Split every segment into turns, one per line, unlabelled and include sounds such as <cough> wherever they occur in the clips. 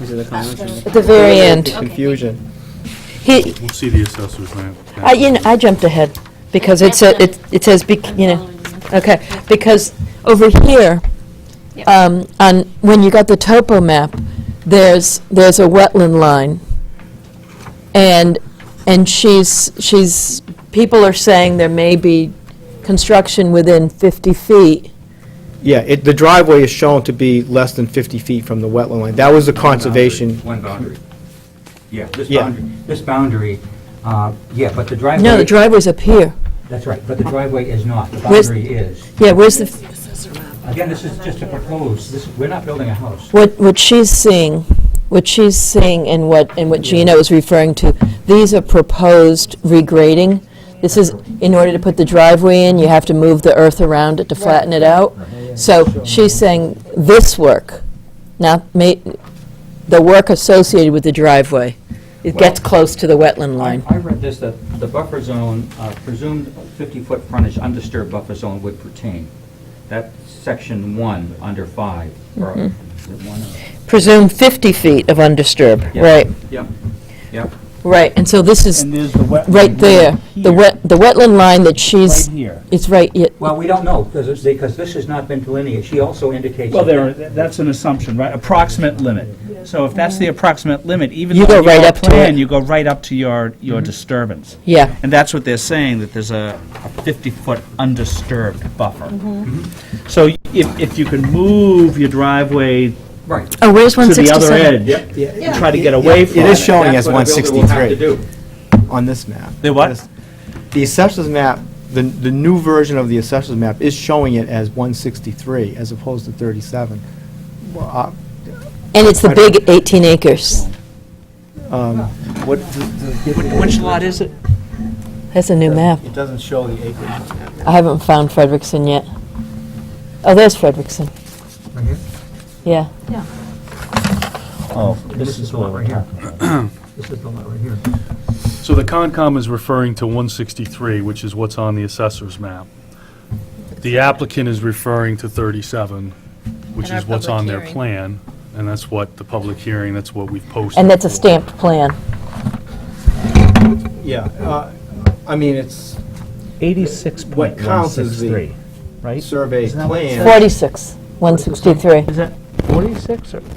These are the comments.
At the very end.
Confusion.
He,
We'll see the assessor's map.
I, you know, I jumped ahead, because it said, it it says, bec- you know, okay, because over here,
Yep.
um, on, when you got the topo map, there's, there's a wetland line, and, and she's, she's, people are saying there may be construction within 50 feet.
Yeah, it, the driveway is shown to be less than 50 feet from the wetland line. That was the conservation.
One boundary. Yeah, this
Yeah.
boundary, this boundary, uh, yeah, but the driveway...
No, the driveway's up here.
That's right, but the driveway is not, the
Where's-
boundary is.
Yeah, where's the,
Again, this is just a proposed, this, we're not building a house.
What, what she's seeing, what she's seeing and what, and what Gina was referring to, these are proposed regrading. This is, in order to put the driveway in, you have to move the earth around it to flatten it out. So she's saying this work, not ma, the work associated with the driveway. It gets close to the wetland
I
line.
I read this, that the buffer zone, uh, presumed 50-foot frontage undisturbed buffer zone would pertain. That's section one, under five, or, is
Mm-hmm.
it one? or-
Presume 50 feet of undisturbed,
Yeah.
right,
Yep, yep.
right. And so this is
And there's the wetland.
right there, the
here,
wet, the wetland line that
Right
she's,
here.
it's right, yeah,
Well, we don't know, because it's- because this has not been delineated. She also indicates...
Well,
that-
there, that's an assumption, right? Approximate limit. So if that's the approximate limit, even
You
though
go
you
right
don't
up to
plan,
it.
you go right up to your,
Mm-hmm.
your disturbance.
yeah.
And that's what they're saying, that there's a 50-foot undisturbed buffer.
Mm-hmm.
Mm-hmm. So if, if you can move your driveway to
Right.
Oh, where's
the other
167?
edge, and try to get away
It
from
is
it.
showing as
That's what a builder will have to
163
do.
on this map.
The what?
The assessor's map, the, the new version of the assessor's map is showing it as 163 as opposed to 37. Well, uh,
And it's the big 18 acres.
um, What?
Which lot is it?
That's a new map.
It doesn't show the acreage.
I haven't found Frederickson yet. Oh, there's Frederickson. Yeah.
Oh, this is
<clears throat>
what
right here. This is the lot right here.
So the Concom is referring to 163, which is what's on the assessor's map. The applicant is referring to 37, which
And our
is what's
public
on their
hearing.
plan, and that's what the public hearing, that's what we've posted.
And that's a
for.
stamped plan.
Yeah, uh, I mean, it's
86.163, right?
survey plan.
46, 163.
Is that 46 or?
Yeah.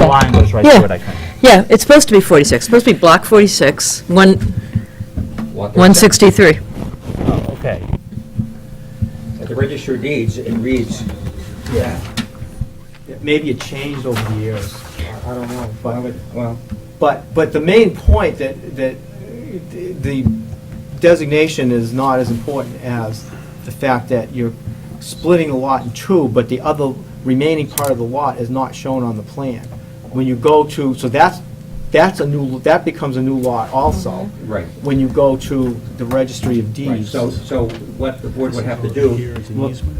The line goes right
Yeah.
through it, I think.
Yeah, it's supposed to be 46, supposed to be block 46, 1,
Lot there.
163.
Oh, okay.
At the register of deeds, it reads,
Yeah. Maybe it changed over the years. I- I don't know, but.
well,
But, but the main point that, that the designation is not as important as the fact that you're splitting the lot in two, but the other remaining part of the lot is not shown on the plan. When you go to, so that's, that's a new, that becomes a new lot also.
Right.
When you go to the registry of
right,
deeds.
so, so what the board would have to do,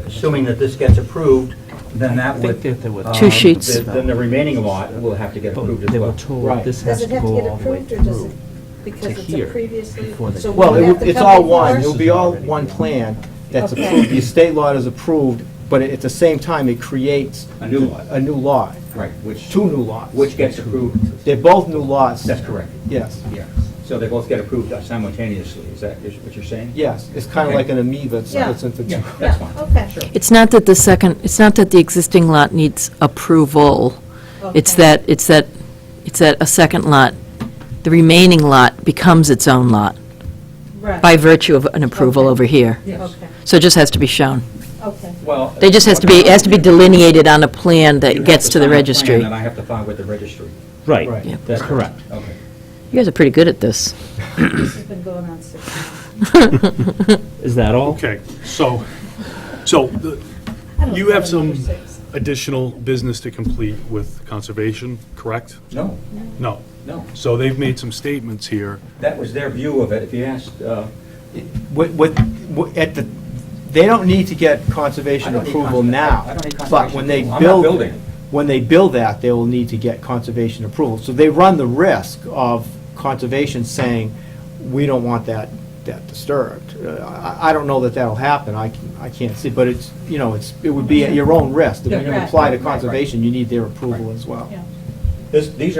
assuming that this gets approved, then that would...
think that there were
um,
Two sheets.
th- Then the remaining lot will have to get approved as
They were
well.
Right.
told this has
Does
to
it have to
go
get
all the way
approved, or does
through.
it, because it's
here
a previously?
before they-
so
Well,
we
it
have
would-
to
it's
come
all
before
one,
us?
it'll be all one plan that's approved. The estate lot is approved, but at the same time, it creates
A new lot.
a new lot,
Right, which,
two new lots.
which gets approved,
They're both new lots.
that's correct,
Yes,
yeah. So they both get approved simultaneously, is that is what you're saying?
yes. It's kind of
Okay.
like an amoeba, it's
Yeah.
it's into two.
Yeah,
Yeah,
that's fine.
okay.
It's not that the second, it's not that the existing lot needs approval. It's
Okay.
that, it's that, it's that a second lot, the remaining lot becomes its own lot
Right.
by virtue of an approval
Okay.
over here.
Yes.
Okay,
So it just has to be shown.
okay.
Well...
It just has to be, it has to be delineated on a plan
You
that
have
gets to the
sign a plan
registry.
that I have to file with the registry.
Right.
Right,
Yeah.
that's correct.
Okay.
You guys are pretty good at this.
This has been going on six months.
Is that all?
Okay, so, so the-
I don't
you have
remember
some
six.
additional business to complete with conservation, correct?
No,
No.
no,
So they've made some statements here.
that was their view of it. If you asked, uh,
What, what, what- at the, they don't need to get
I
conservation
don't need
approval
conserva-
now.
I don't need
But
conservation
when they
approval.
build.
I'm not building.
When they build that, they will need to get conservation approval. So they run the risk of conservation saying, we don't want that, that disturbed. Uh, I, I don't know that that'll happen, I, can- I can't see, but it's, you know, it's, it would be at your own risk. If
Yeah,
you're gonna
right,
apply to
right, right.
conservation, you need their approval
Right.
as well.
Yeah.
This, these are.